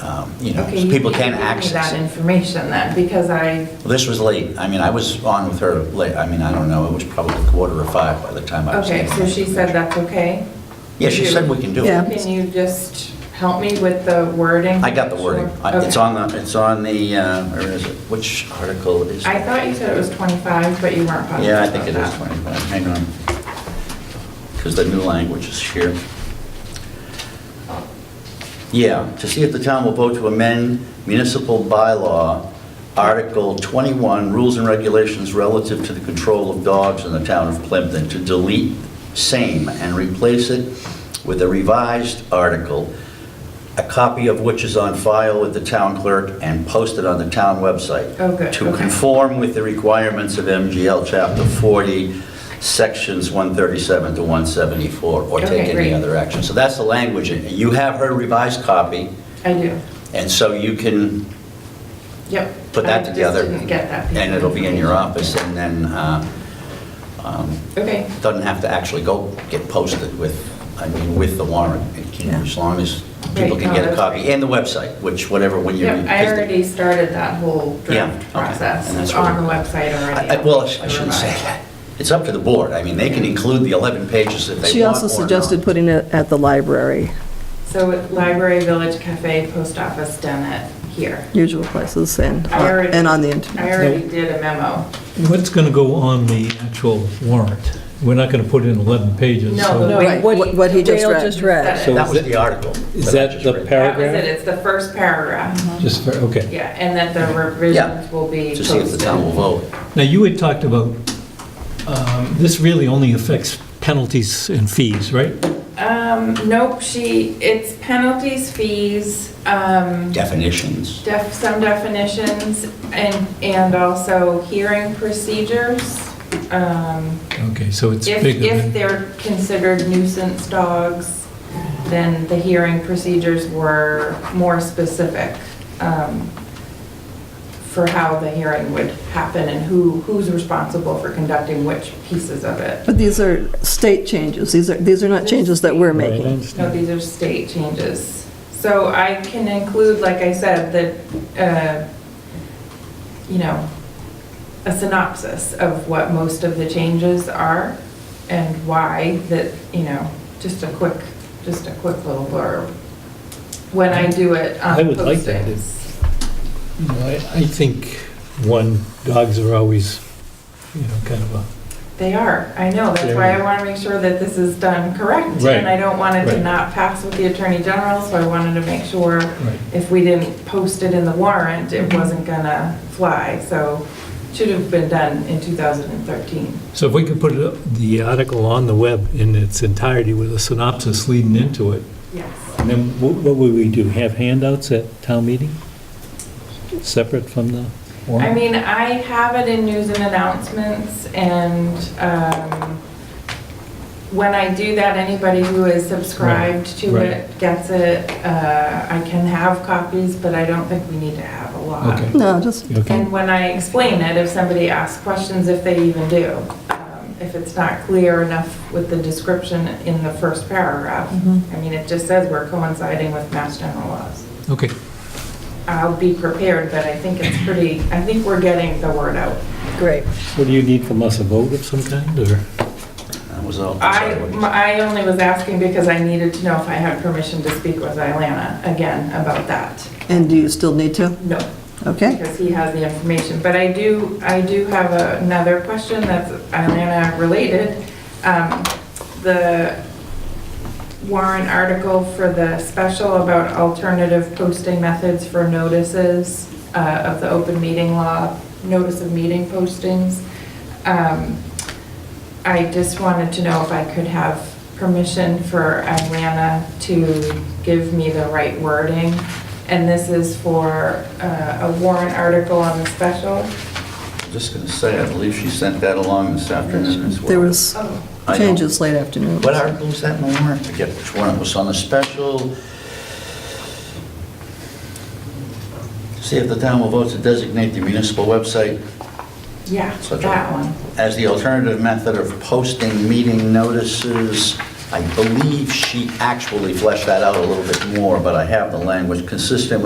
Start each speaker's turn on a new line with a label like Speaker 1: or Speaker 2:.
Speaker 1: um, you know,
Speaker 2: Okay,
Speaker 1: so
Speaker 2: you
Speaker 1: people
Speaker 2: can
Speaker 1: can
Speaker 2: give me
Speaker 1: access
Speaker 2: That
Speaker 1: it.
Speaker 2: information then, because I,
Speaker 1: Well, This was late. I mean, I was on with her late. I mean, I don't know, it was probably quarter of five by the time I was.
Speaker 2: okay,
Speaker 1: getting
Speaker 2: so
Speaker 1: on.
Speaker 2: she said that's okay?
Speaker 1: Yeah, she said we can do
Speaker 3: Yeah.
Speaker 1: it.
Speaker 2: Can you just help me with the wording?
Speaker 1: I got the wording.
Speaker 2: Sure.
Speaker 1: I- It's
Speaker 2: Okay.
Speaker 1: on the, it's on the, uh, where is it? Which article is
Speaker 2: I
Speaker 1: it?
Speaker 2: thought you said it was 25, but you weren't positive.
Speaker 1: Yeah, I think it
Speaker 2: about
Speaker 1: is
Speaker 2: that.
Speaker 1: 25. Hang on. Because the new language is here. Yeah, to see if the town will vote to amend municipal bylaw, Article 21, Rules and Regulations Relative to the Control of Dogs in the Town of Plymouth, and to delete same and replace it with a revised article, a copy of which is on file with the town clerk and posted on the town website.
Speaker 2: Oh, good,
Speaker 1: To
Speaker 2: okay.
Speaker 1: conform with the requirements of MGL Chapter 40, Sections 137 to 174, or
Speaker 2: Okay,
Speaker 1: take any
Speaker 2: great.
Speaker 1: other action. So that's the language. You have her revised copy,
Speaker 2: I do,
Speaker 1: and so you can
Speaker 2: yep.
Speaker 1: put that together.
Speaker 2: I just didn't get that. piece
Speaker 1: And
Speaker 2: of
Speaker 1: it'll be in your
Speaker 2: information.
Speaker 1: office, and then uh, um,
Speaker 2: Okay,
Speaker 1: it doesn't have to actually go get posted with, I mean, with the warrant. It can-
Speaker 3: Yeah.
Speaker 1: As long as people
Speaker 2: Right,
Speaker 1: can
Speaker 2: no,
Speaker 1: get a
Speaker 2: that's
Speaker 1: copy,
Speaker 2: great.
Speaker 1: and the website, which, whatever, when you...
Speaker 2: yep, I already started that whole
Speaker 1: Yeah, okay,
Speaker 2: draft process.
Speaker 1: and that's
Speaker 2: It's on
Speaker 1: what-
Speaker 2: the website already.
Speaker 1: I- I- Well, I shouldn't say that. It's up to the board. I mean, they can include the 11 pages if they want
Speaker 3: She also
Speaker 1: or not.
Speaker 3: suggested putting it at the library,
Speaker 2: So library, village, cafe, post office, Dennett, here.
Speaker 3: usual places, and, uh,
Speaker 2: I already-
Speaker 3: and on the
Speaker 2: I
Speaker 3: internet.
Speaker 2: already did a memo.
Speaker 4: What's going to go on the actual warrant? We're not going to put in 11 pages.
Speaker 2: No,
Speaker 4: so-
Speaker 2: the-
Speaker 3: Right,
Speaker 5: What
Speaker 3: what what he just
Speaker 5: Dale
Speaker 3: read.
Speaker 5: just read.
Speaker 2: That
Speaker 4: So
Speaker 1: That
Speaker 4: is
Speaker 1: was
Speaker 4: it-
Speaker 1: the article.
Speaker 4: Is
Speaker 1: I
Speaker 4: that
Speaker 1: just
Speaker 4: the
Speaker 1: read.
Speaker 2: That was it,
Speaker 4: paragraph?
Speaker 2: it's the first paragraph.
Speaker 4: Just, for- okay.
Speaker 2: Yeah, and that the revisions will be
Speaker 1: To see if the town will
Speaker 2: posted.
Speaker 1: vote.
Speaker 4: Now, you had talked about, um, this really only affects penalties and fees, right?
Speaker 2: Um, nope, she, it's penalties, fees, um,
Speaker 1: Definitions.
Speaker 2: def, some definitions, and, and also hearing procedures. Um,
Speaker 4: Okay, so it's
Speaker 2: if,
Speaker 4: bigger
Speaker 2: if
Speaker 4: than...
Speaker 2: they're considered nuisance dogs, then the hearing procedures were more specific, um, for how the hearing would happen and who, who's responsible for conducting which pieces of it.
Speaker 3: But these are state changes, these are, these are not changes that we're
Speaker 4: Right, I
Speaker 3: making.
Speaker 4: understand.
Speaker 2: No, these are state changes. So I can include, like I said, that, uh, you know, a synopsis of what most of the changes are and why, that, you know, just a quick, just a quick little blurb when I do it on
Speaker 4: I would like that.
Speaker 2: postings.
Speaker 4: No, I I think, one, dogs are always, you know, kind of a,
Speaker 2: They are, I know, that's why I want to make sure that this is done correct.
Speaker 4: Right,
Speaker 2: And I don't want it to
Speaker 4: right.
Speaker 2: not pass with the Attorney General, so I wanted to make sure
Speaker 4: right. Mm-hmm.
Speaker 2: if we didn't post it in the warrant, it wasn't gonna fly, so should have been done in 2013.
Speaker 4: So if we could put it- the article on the web in its entirety with a synopsis leading into it,
Speaker 2: Yes.
Speaker 4: And then wh- what would we do, have handouts at town meeting? Separate from the
Speaker 2: I
Speaker 4: warrant?
Speaker 2: mean, I have it in news and announcements, and um, when I do that, anybody who is subscribed to
Speaker 4: Right,
Speaker 2: it gets it. Uh, I can have copies, but I don't think we need to have a lot.
Speaker 4: Okay.
Speaker 3: No, just,
Speaker 4: Okay,
Speaker 2: And when I explain it, if somebody asks questions, if they even do, um, if it's not clear enough with the description in the first paragraph, I mean, it just says we're coinciding with mass general laws.
Speaker 4: okay.
Speaker 2: I'll be prepared, but I think it's pretty, I think we're getting the word out.
Speaker 3: great.
Speaker 4: What do you need from us, a vote of some kind, or?
Speaker 1: That was all.
Speaker 2: I,
Speaker 1: sorry, what did you say?
Speaker 2: I only was asking because I needed to know if I had permission to speak with Ilana again about that.
Speaker 3: And do you still need to?
Speaker 2: No,
Speaker 3: Okay.
Speaker 2: because he has the information. But I do, I do have another question that's Atlanta related. Um, The warrant article for the special about alternative posting methods for notices uh, of the open meeting law, notice of meeting postings. Um, I just wanted to know if I could have permission for Atlanta to give me the right wording. And this is for uh, a warrant article on the special.
Speaker 1: I'm Just going to say, I believe she sent that along this afternoon as well.
Speaker 3: There was
Speaker 2: Oh,
Speaker 1: I don't-
Speaker 3: changes late afternoon.
Speaker 1: What article was that in the warrant? I forget which one. It was on the special. See if the town will vote to designate the municipal website
Speaker 2: yeah,
Speaker 1: Such a-
Speaker 2: that one.
Speaker 1: as the alternative method of posting meeting notices. I believe she actually fleshed that out a little bit more, but I have the language consistent with